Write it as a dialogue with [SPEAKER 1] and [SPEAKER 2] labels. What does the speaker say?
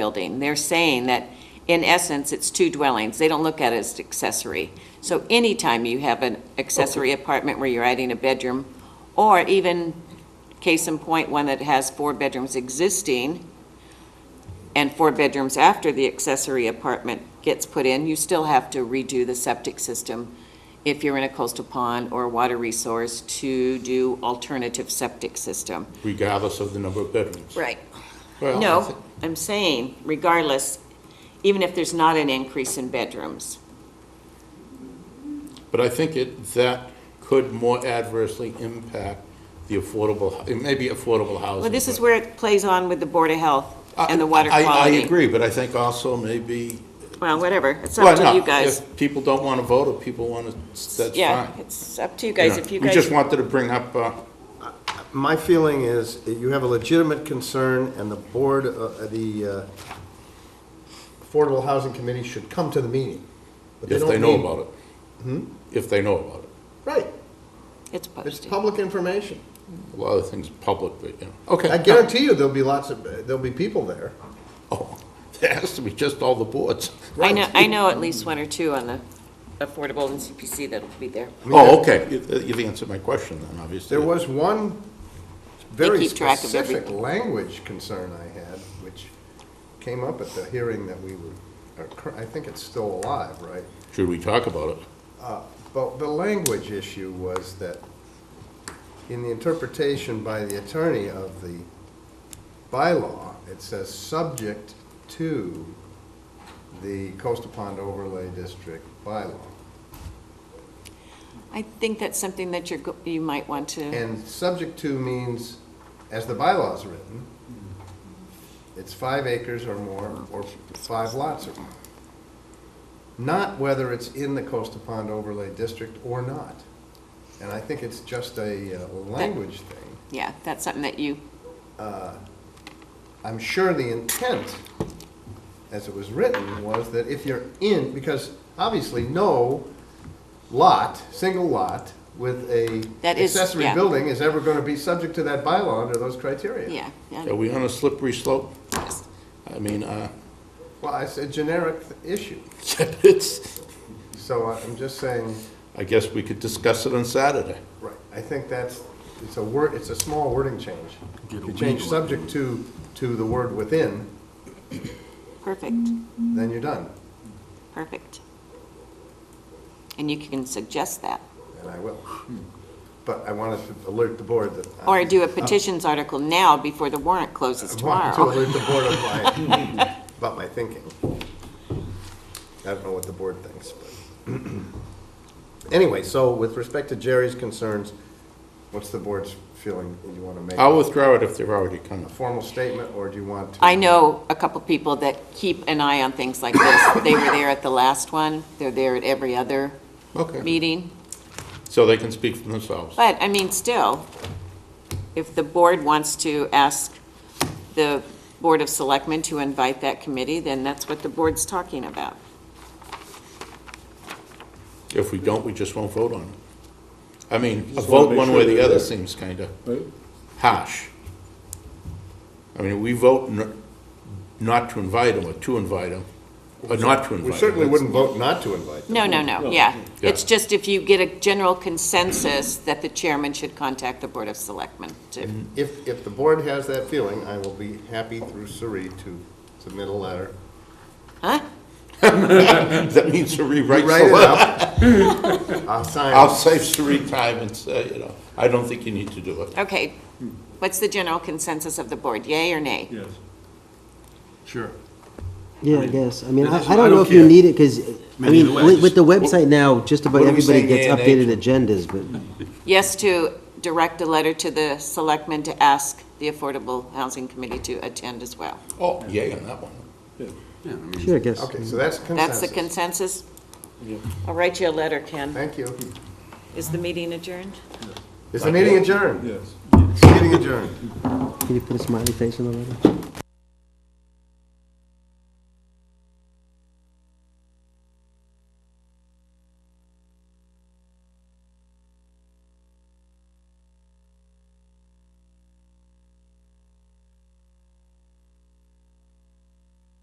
[SPEAKER 1] building. They're saying that, in essence, it's two dwellings. They don't look at it as accessory. So anytime you have an accessory apartment where you're adding a bedroom, or even, case in point, one that has four bedrooms existing and four bedrooms after the accessory apartment gets put in, you still have to redo the septic system if you're in a coastal pond or water resource to do alternative septic system.
[SPEAKER 2] regardless of the number of bedrooms.
[SPEAKER 1] Right.
[SPEAKER 2] Well, I thi-
[SPEAKER 1] No, I'm saying regardless, even if there's not an increase in bedrooms.
[SPEAKER 2] But I think it, that could more adversely impact the affordable, it may be affordable housing.
[SPEAKER 1] Well, this is
[SPEAKER 2] but-
[SPEAKER 1] where it plays on with the Board of Health
[SPEAKER 2] I-
[SPEAKER 1] and the water
[SPEAKER 2] I-
[SPEAKER 1] quality.
[SPEAKER 2] I agree, but I think also maybe.
[SPEAKER 1] Well, whatever, it's
[SPEAKER 2] Well,
[SPEAKER 1] up to
[SPEAKER 2] no,
[SPEAKER 1] you guys.
[SPEAKER 2] If people don't want to vote, or people want to, that's fine.
[SPEAKER 1] Yeah, it's up to you guys,
[SPEAKER 2] know,
[SPEAKER 1] if you
[SPEAKER 2] We
[SPEAKER 1] guys.
[SPEAKER 2] just wanted to bring up, uh,
[SPEAKER 3] My feeling is that you have a legitimate concern, and the board, uh, the uh, Affordable Housing Committee should come to the meeting. but
[SPEAKER 2] if they
[SPEAKER 3] don't
[SPEAKER 2] know
[SPEAKER 3] need- Hmm?
[SPEAKER 2] about it. If they know about it.
[SPEAKER 3] Right,
[SPEAKER 1] It's
[SPEAKER 3] it's
[SPEAKER 1] posted.
[SPEAKER 3] public information.
[SPEAKER 2] A lot of things public, but, you know, okay.
[SPEAKER 3] I guarantee you, there'll be lots of, there'll be people there.
[SPEAKER 2] Oh, There has to be just all the boards.
[SPEAKER 1] I know, I know at least one or two on the affordable and CPC that'll be there.
[SPEAKER 3] mean,
[SPEAKER 2] Oh, okay, You- you've answered my question then, obviously.
[SPEAKER 3] There was one very
[SPEAKER 1] keep track of
[SPEAKER 3] specific
[SPEAKER 1] everything.
[SPEAKER 3] language concern I had, which came up at the hearing that we were, occur- I think it's still alive, right?
[SPEAKER 2] Should we talk about it?
[SPEAKER 3] But the language issue was that, in the interpretation by the attorney of the bylaw, it says, "Subject to the coastal pond overlay district bylaw."
[SPEAKER 1] I think that's something that you're, go- you might want to,
[SPEAKER 3] And "subject to" means, as the bylaw's written, it's five acres or more, or five lots or more. Not whether it's in the coastal pond overlay district or not. And I think it's just a uh, language thing.
[SPEAKER 1] yeah, that's something that you,
[SPEAKER 3] I'm sure the intent, as it was written, was that if you're in, because obviously no lot, single lot with a
[SPEAKER 1] That is-
[SPEAKER 3] accessory
[SPEAKER 1] yeah.
[SPEAKER 3] building is ever going to be subject to that bylaw under those criteria.
[SPEAKER 1] yeah. yeah.
[SPEAKER 2] Are we on a slippery slope? I mean, uh,
[SPEAKER 3] Well, it's a generic issue,
[SPEAKER 2] it's,
[SPEAKER 3] so I'm just saying,
[SPEAKER 2] I guess we could discuss it on Saturday.
[SPEAKER 3] right, I think that's, it's a word, it's a small wording change. If you change subject to, to the word within,
[SPEAKER 1] Perfect.
[SPEAKER 3] then you're done,
[SPEAKER 1] Perfect. And you can suggest that,
[SPEAKER 3] and I will. But I wanted to alert the board that. I'm-
[SPEAKER 1] or do a petitions article now before the warrant closes
[SPEAKER 3] I wanted to
[SPEAKER 1] tomorrow.
[SPEAKER 3] alert the board of my, about my thinking. I don't know what the board thinks, but. Anyway, so with respect to Jerry's concerns, what's the board's feeling? Do you want to make
[SPEAKER 2] I'll
[SPEAKER 3] a
[SPEAKER 2] withdraw it if they've already come.
[SPEAKER 3] formal statement, or do you want to?
[SPEAKER 1] I know a couple people that keep an eye on things like this. They were there at the last one, they're there at every other
[SPEAKER 2] Okay.
[SPEAKER 1] meeting.
[SPEAKER 2] So they can speak for themselves.
[SPEAKER 1] But, I mean, still, if the board wants to ask the Board of Selectmen to invite that committee, then that's what the board's talking about.
[SPEAKER 2] If we don't, we just won't vote on it. I mean, a
[SPEAKER 4] Just wanna
[SPEAKER 2] vote
[SPEAKER 4] make
[SPEAKER 2] one
[SPEAKER 4] sure
[SPEAKER 2] way or the
[SPEAKER 4] they're
[SPEAKER 2] other
[SPEAKER 4] there.
[SPEAKER 2] seems kind of
[SPEAKER 4] Right?
[SPEAKER 2] harsh. I mean, we vote n- not to invite them or to invite them, or not to invite them.
[SPEAKER 3] We certainly wouldn't vote not to invite them.
[SPEAKER 1] No, no, no, yeah.
[SPEAKER 2] Yeah.
[SPEAKER 1] It's just if you get a general consensus that the chairman should contact the Board of Selectmen to,
[SPEAKER 3] If, if the board has that feeling, I will be happy through Suri to submit a letter.
[SPEAKER 1] huh?
[SPEAKER 2] That means to rewrite
[SPEAKER 3] Write
[SPEAKER 2] the
[SPEAKER 3] it
[SPEAKER 2] law.
[SPEAKER 3] up. I'll sign it.
[SPEAKER 2] I'll save Sri time and say, you know, I don't think you need to do it.
[SPEAKER 1] Okay, what's the general consensus of the board, yay or nay?
[SPEAKER 4] Yes. Sure.
[SPEAKER 5] Yeah, I guess. I mean, I,
[SPEAKER 4] Listen,
[SPEAKER 5] I don't know if you
[SPEAKER 4] care.
[SPEAKER 5] need it, because, I mean,
[SPEAKER 4] either way,
[SPEAKER 5] with, with the
[SPEAKER 2] just-
[SPEAKER 5] website now, just about
[SPEAKER 2] What are we
[SPEAKER 5] everybody
[SPEAKER 2] saying,
[SPEAKER 5] gets
[SPEAKER 2] yeah,
[SPEAKER 5] updated agendas, but
[SPEAKER 1] Yes to direct a letter to the selectmen to ask the Affordable Housing Committee to attend as well.
[SPEAKER 2] Oh, yay on that one.
[SPEAKER 5] sure, I guess.
[SPEAKER 3] Okay, so that's
[SPEAKER 1] That's the
[SPEAKER 3] consensus.
[SPEAKER 1] consensus? I'll write you a letter, Ken.
[SPEAKER 3] Thank you.
[SPEAKER 1] Is the meeting adjourned?
[SPEAKER 3] Is the meeting adjourned?
[SPEAKER 4] Yes.
[SPEAKER 3] Meeting adjourned.
[SPEAKER 5] Can you put a smiley face on the letter?